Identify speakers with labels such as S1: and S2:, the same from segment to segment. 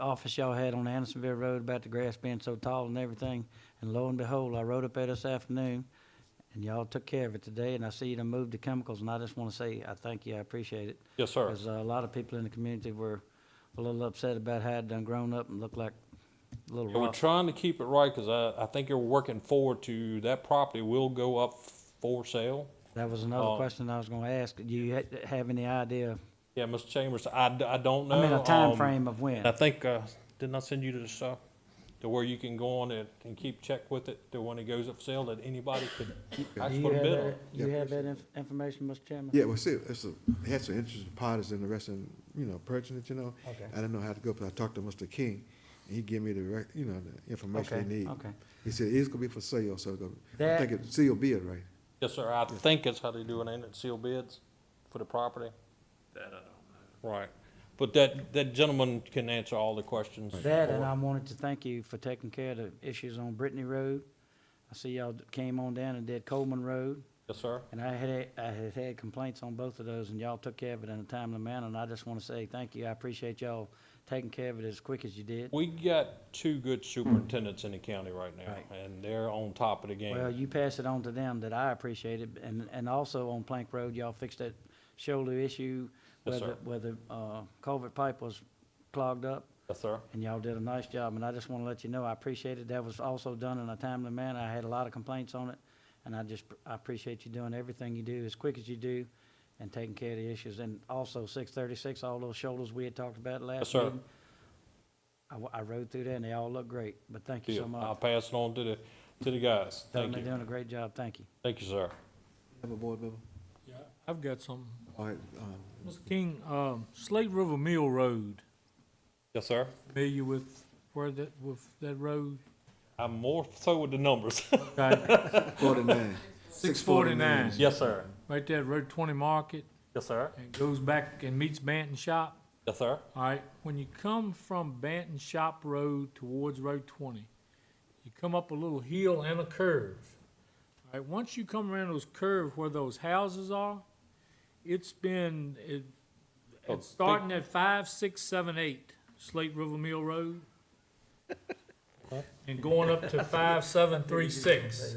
S1: office y'all had on Andersonville Road about the grass being so tall and everything. And lo and behold, I rode up there this afternoon and y'all took care of it today and I see you done moved the chemicals and I just wanna say, I thank you, I appreciate it.
S2: Yes, sir.
S1: Cause uh, a lot of people in the community were a little upset about how it done grown up and looked like a little
S2: Yeah, we're
S1: rough.
S2: trying to keep it right because I, I think you're working forward to that property will go up for sale.
S1: That was another
S2: Oh.
S1: question I was gonna ask. Do you ha- have any idea?
S2: Yeah, Mr. Chambers, I, d- I don't know.
S1: I mean, a
S2: um,
S1: time frame of when?
S2: I think, uh, didn't I send you to the stuff to where you can go on it and keep check with it to when it goes up for sale that anybody could
S1: Do
S2: actually
S1: you
S2: put a
S1: have
S2: bid on?
S1: that,
S2: it?
S1: do you have that inf- information, Mr. Chairman?
S3: Yeah, well, see, it's a, it had some interesting part is interesting, you know, purchasing it, you know.
S1: Okay.
S3: I didn't know how to go, but I talked to Mr. King, and he gave me the, rec- you know, the information
S1: Okay,
S3: they need.
S1: okay.
S3: He said, it's gonna be for sale, so it's gonna, I
S1: That-
S3: think it's seal bid, right?
S2: Yes, sir. I think that's how they do it, ain't it? Seal bids for the property? That I don't know. Right. But that, that gentleman can answer all the questions.
S1: That,
S2: for
S1: and
S2: it.
S1: I wanted to thank you for taking care of the issues on Brittany Road. I see y'all d- came on down and did Coleman Road,
S2: Yes, sir.
S1: and I had, I had had complaints on both of those, and y'all took care of it in a timely manner, and I just want to say thank you. I appreciate y'all taking care of it as quick as you did.
S2: We got two good superintendents in the county right now,
S1: Right.
S2: and they're on top of the game.
S1: Well, you pass it on to them that I appreciate it, and, and also on Plank Road, y'all fixed that shoulder issue,
S2: Yes,
S1: whether,
S2: sir.
S1: whether, uh, culvert pipe was clogged up.
S2: Yes, sir.
S1: and y'all did a nice job, and I just want to let you know, I appreciate it. That was also done in a timely manner. I had a lot of complaints on it, and I just, I appreciate you doing everything you do as quick as you do and taking care of the issues. And also, six thirty-six, all those shoulders we had talked about last
S2: sir.
S1: meeting. I, wa- I rode through there, and they all look great, but thank you so
S2: Deal. I'll
S1: much.
S2: pass it on to the, to the guys.
S1: Tell them
S2: Thank
S1: They're
S2: you.
S1: doing a great job. Thank you.
S2: Thank you, sir.
S3: Have a board member?
S4: Yeah, I've got some.
S3: All right, um,
S4: Mr. King, um, Slate River Mill Road,
S2: Yes, sir.
S4: familiar with where that, with that road?
S2: I'm more so with the numbers.
S4: Right,
S3: forty-nine.
S4: Six forty-nine,
S2: Yes, sir.
S4: right there, at Road Twenty Market,
S2: Yes, sir.
S4: and goes back and meets Banton Shop.
S2: Yes, sir.
S4: All right, when you come from Banton Shop Road towards Road Twenty, you come up a little hill and a curve. All right, once you come around those curves where those houses are, it's been, it,
S2: Oh, big-
S4: it's starting at five, six, seven, eight, Slate River Mill Road. And going up to five, seven, three, six,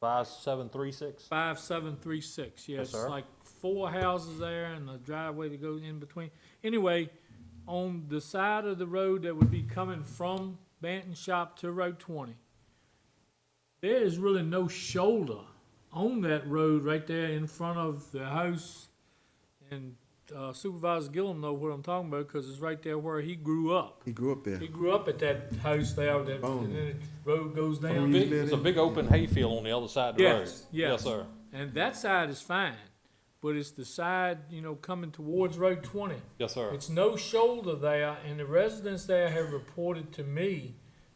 S2: Five, seven, three, six.
S4: five, seven, three, six, yeah,
S2: Yes,
S4: it's
S2: sir.
S4: like four houses there and a driveway that goes in between. Anyway, on the side of the road that would be coming from Banton Shop to Road twenty, there is really no shoulder on that road right there in front of the house. And uh, Supervisor Gillum know what I'm talking about, cause it's right there where he grew up.
S3: He grew up there.
S4: He grew up at that house there, that,
S3: Oh.
S4: and then the road goes
S3: Oh,
S4: down.
S3: yeah.
S2: Big- It's a big open hayfield on the other side of the road.
S4: Yes, yes.
S2: sir.
S4: And that side is fine, but it's the side, you know, coming towards Road twenty.
S2: Yes, sir.
S4: It's no shoulder there, and the residents there have reported to me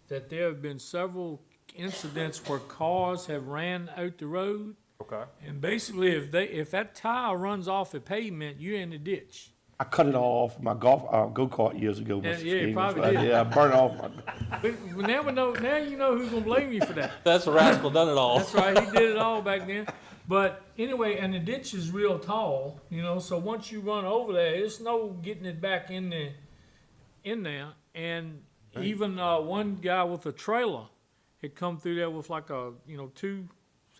S4: that there have been several incidents where cars have ran out the road.
S2: Okay.
S4: And basically, if they, if that tire runs off the pavement, you're in the ditch.
S5: I cut it all off my golf uh, go kart years ago,
S4: Yeah,
S5: Mr.
S4: yeah, you
S5: King.
S4: probably
S5: That's right.
S4: did.
S5: Yeah, I burned off. My,
S4: But now we know, now you know who's gonna blame you for that.
S2: That's a rascal done it all.
S4: That's right, he did it all back then. But anyway, and the ditch is real tall, you know, so once you run over there, it's no getting it back in the, in there. And even, uh, one guy with a trailer had come through there with like a, you know, two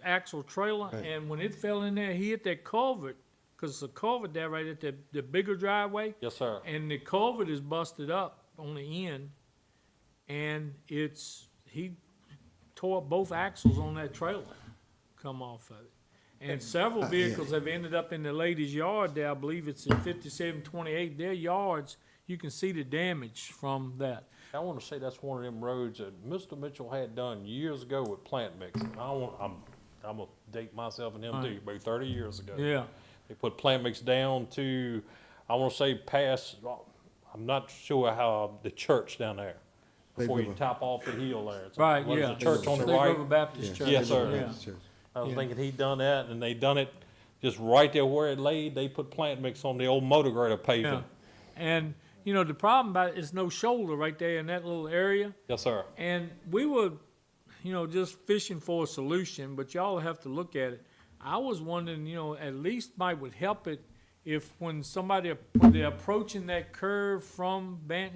S4: axle trailer, and when it fell in there, he hit that culvert, cause it's a culvert there right at the, the bigger driveway.
S2: Yes, sir.
S4: And the culvert is busted up on the end, and it's, he tore up both axles on that trailer, come off of it. And several vehicles have ended up in the lady's yard there, I believe it's in fifty-seven twenty-eight, their yards, you can see the damage from that.
S2: I want to say that's one of them roads that Mr. Mitchell had done years ago with plant mixing. I want, I'm, I'm gonna date myself and him too, about thirty years ago.
S4: Yeah,
S2: They put plant mix down to, I want to say past, I'm not sure how, the church down there.
S3: Big
S2: Before you
S3: river.
S2: top off the hill there. It's-
S4: right,
S2: what is
S4: yeah.
S2: it, Church on the
S4: State
S2: right.
S4: River Baptist Church.
S2: Yes, sir.
S4: Yeah.
S2: I was
S4: Yeah.
S2: thinking he'd done that, and they done it just right there where it laid. They put plant mix on the old motor grader
S4: Yeah,
S2: pavement.
S4: and, you know, the problem about it is no shoulder right there in that little area.
S2: Yes, sir.
S4: And we were, you know, just fishing for a solution, but y'all have to look at it. I was wondering, you know, at least might would help it if when somebody, when they're approaching that curve from Banton